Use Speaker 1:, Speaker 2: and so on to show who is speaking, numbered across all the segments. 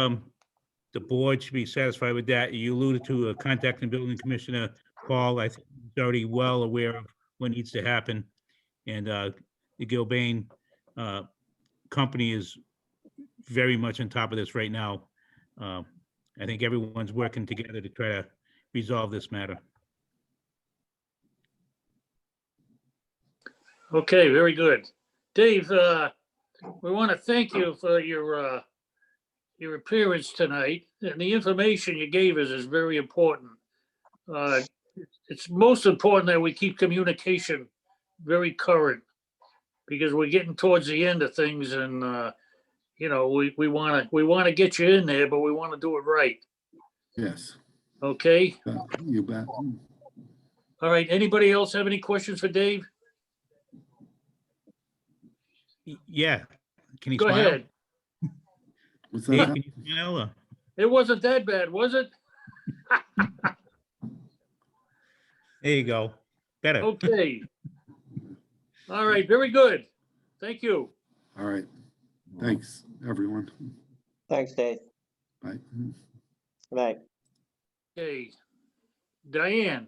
Speaker 1: um, the board should be satisfied with that. You alluded to uh, contacting building commissioner Paul. I think he's already well aware of what needs to happen. And uh, the Gilbane uh, company is very much on top of this right now. Uh, I think everyone's working together to try to resolve this matter.
Speaker 2: Okay, very good. Dave, uh, we want to thank you for your, uh, your appearance tonight, and the information you gave us is very important. Uh, It's most important that we keep communication very current, because we're getting towards the end of things and, uh, you know, we, we want to, we want to get you in there, but we want to do it right,
Speaker 3: Yes,
Speaker 2: okay?
Speaker 3: uh, you bet.
Speaker 2: All right, anybody else have any questions for Dave?
Speaker 1: Y- Yeah, can you
Speaker 2: Go
Speaker 1: smile?
Speaker 2: ahead.
Speaker 3: What's
Speaker 1: Dave,
Speaker 3: that?
Speaker 1: can you smile? or-
Speaker 2: It wasn't that bad, was it?
Speaker 1: There you go.
Speaker 2: Oh,
Speaker 1: Better.
Speaker 2: Okay. All right, very good. Thank you.
Speaker 3: All right. Thanks, everyone.
Speaker 4: Thanks, Dave.
Speaker 3: Bye.
Speaker 4: Good night.
Speaker 2: Okay. Diane.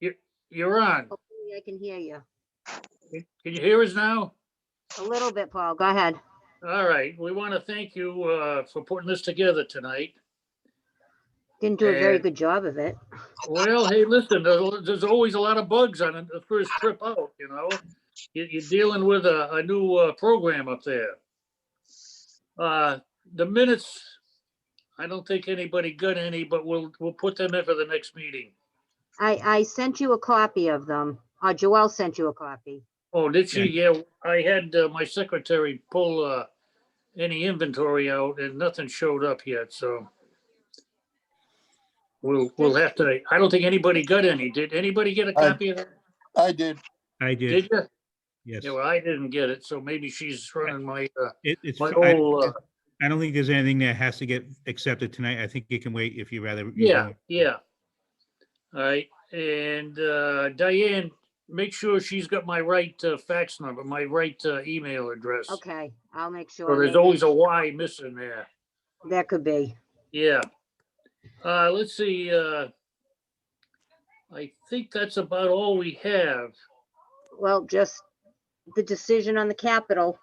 Speaker 2: You're, you're on.
Speaker 5: Hopefully I can hear you.
Speaker 2: Can you hear us now?
Speaker 5: A little bit, Paul. Go ahead.
Speaker 2: All right, we want to thank you uh, for putting this together tonight.
Speaker 5: Didn't do a very
Speaker 2: And-
Speaker 5: good job of it.
Speaker 2: Well, hey, listen, there's there's always a lot of bugs on the first trip out, you know? You- You're dealing with a, a new uh, program up there. Uh, The minutes, I don't think anybody got any, but we'll, we'll put them in for the next meeting.
Speaker 5: I, I sent you a copy of them. Uh, Joelle sent you a copy.
Speaker 2: Oh, did she? Yeah, I had uh, my secretary pull uh, any inventory out and nothing showed up yet, so. We'll, we'll have to, I don't think anybody got any. Did anybody get a
Speaker 6: I-
Speaker 2: copy of that?
Speaker 6: I did.
Speaker 1: I did,
Speaker 2: Did you?
Speaker 1: yes.
Speaker 2: Yeah, well, I didn't get it, so maybe she's running my, uh,
Speaker 1: It- It's,
Speaker 2: my
Speaker 1: I-
Speaker 2: old, uh,
Speaker 1: I don't think there's anything that has to get accepted tonight. I think it can wait if you rather. you
Speaker 2: yeah,
Speaker 1: don't.
Speaker 2: yeah. All right, and, uh, Diane, make sure she's got my right, uh, fax number, my right, uh, email address.
Speaker 5: Okay, I'll make sure.
Speaker 2: So there's
Speaker 5: maybe
Speaker 2: always a Y missing there,
Speaker 5: That could be.
Speaker 2: yeah. Uh, let's see, uh, I think that's about all we have.
Speaker 5: Well, just the decision on the capital.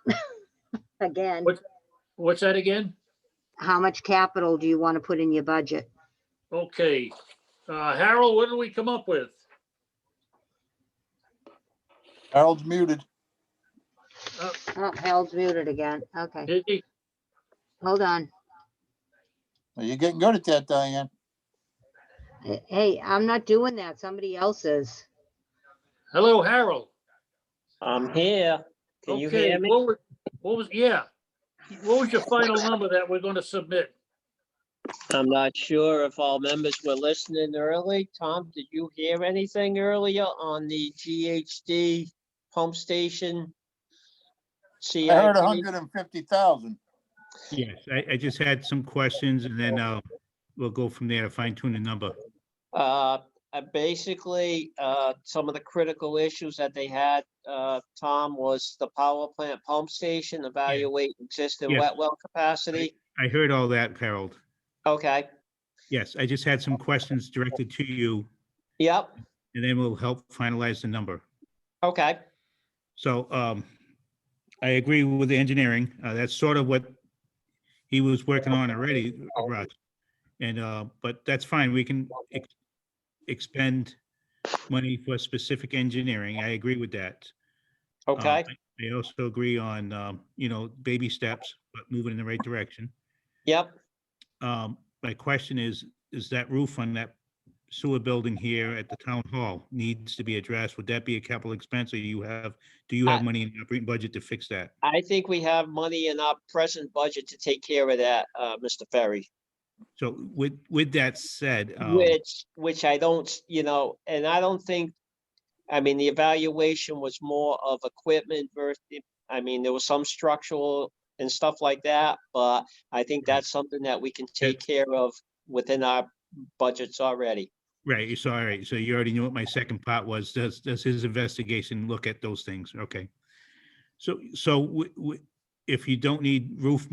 Speaker 5: Again,
Speaker 2: What- What's that again?
Speaker 5: how much capital do you want to put in your budget?
Speaker 2: Okay, uh, Harold, what did we come up with?
Speaker 6: Harold's muted.
Speaker 5: Oh, Harold's muted again. Okay,
Speaker 2: Did he-
Speaker 5: hold on.
Speaker 6: Well, You're getting good at that, Diane.
Speaker 5: Eh, Hey, I'm not doing that. Somebody else is.
Speaker 2: Hello, Harold?
Speaker 4: I'm here. Can you
Speaker 2: Okay,
Speaker 4: hear me?
Speaker 2: what was, what was, yeah, what was your final number that we're gonna submit?
Speaker 4: I'm not sure if all members were listening early. Tom, did you hear anything earlier on the GHD pump station?
Speaker 6: I
Speaker 4: CIP?
Speaker 6: heard hundred and fifty thousand.
Speaker 1: Yes, I, I just had some questions and then, uh, we'll go from there to fine tune the number.
Speaker 4: Uh, uh, basically, uh, some of the critical issues that they had, uh, Tom, was the power plant pump station, evaluate existing
Speaker 1: Yes.
Speaker 4: wet well capacity.
Speaker 1: I heard all that, Harold.
Speaker 4: Okay,
Speaker 1: Yes, I just had some questions directed to you
Speaker 4: yep,
Speaker 1: and then we'll help finalize the number.
Speaker 4: okay,
Speaker 1: So um, I agree with the engineering. Uh, That's sort of what he was working on already, Russ. And, uh, but that's fine. We can ex- expend money for specific engineering. I agree with that. Uh,
Speaker 4: okay,
Speaker 1: I I also agree on, um, you know, baby steps, but moving in the right direction.
Speaker 4: yep.
Speaker 1: Um, My question is, is that roof on that sewer building here at the town hall needs to be addressed? Would that be a capital expense or you have, do you have
Speaker 4: I-
Speaker 1: money in the operating budget to fix that?
Speaker 4: I think we have money in our present budget to take care of that, uh, Mr. Ferry.
Speaker 1: So with, with that said, um,
Speaker 4: Which, which I don't, s- you know, and I don't think, I mean, the evaluation was more of equipment versus, I mean, there was some structural and stuff like that, but I think that's something that we can take care of within our budgets already.
Speaker 1: right, so all right, so you already knew what my second part was. Does, does his investigation look at those things? Okay. So, so wi- wi- if you don't need roof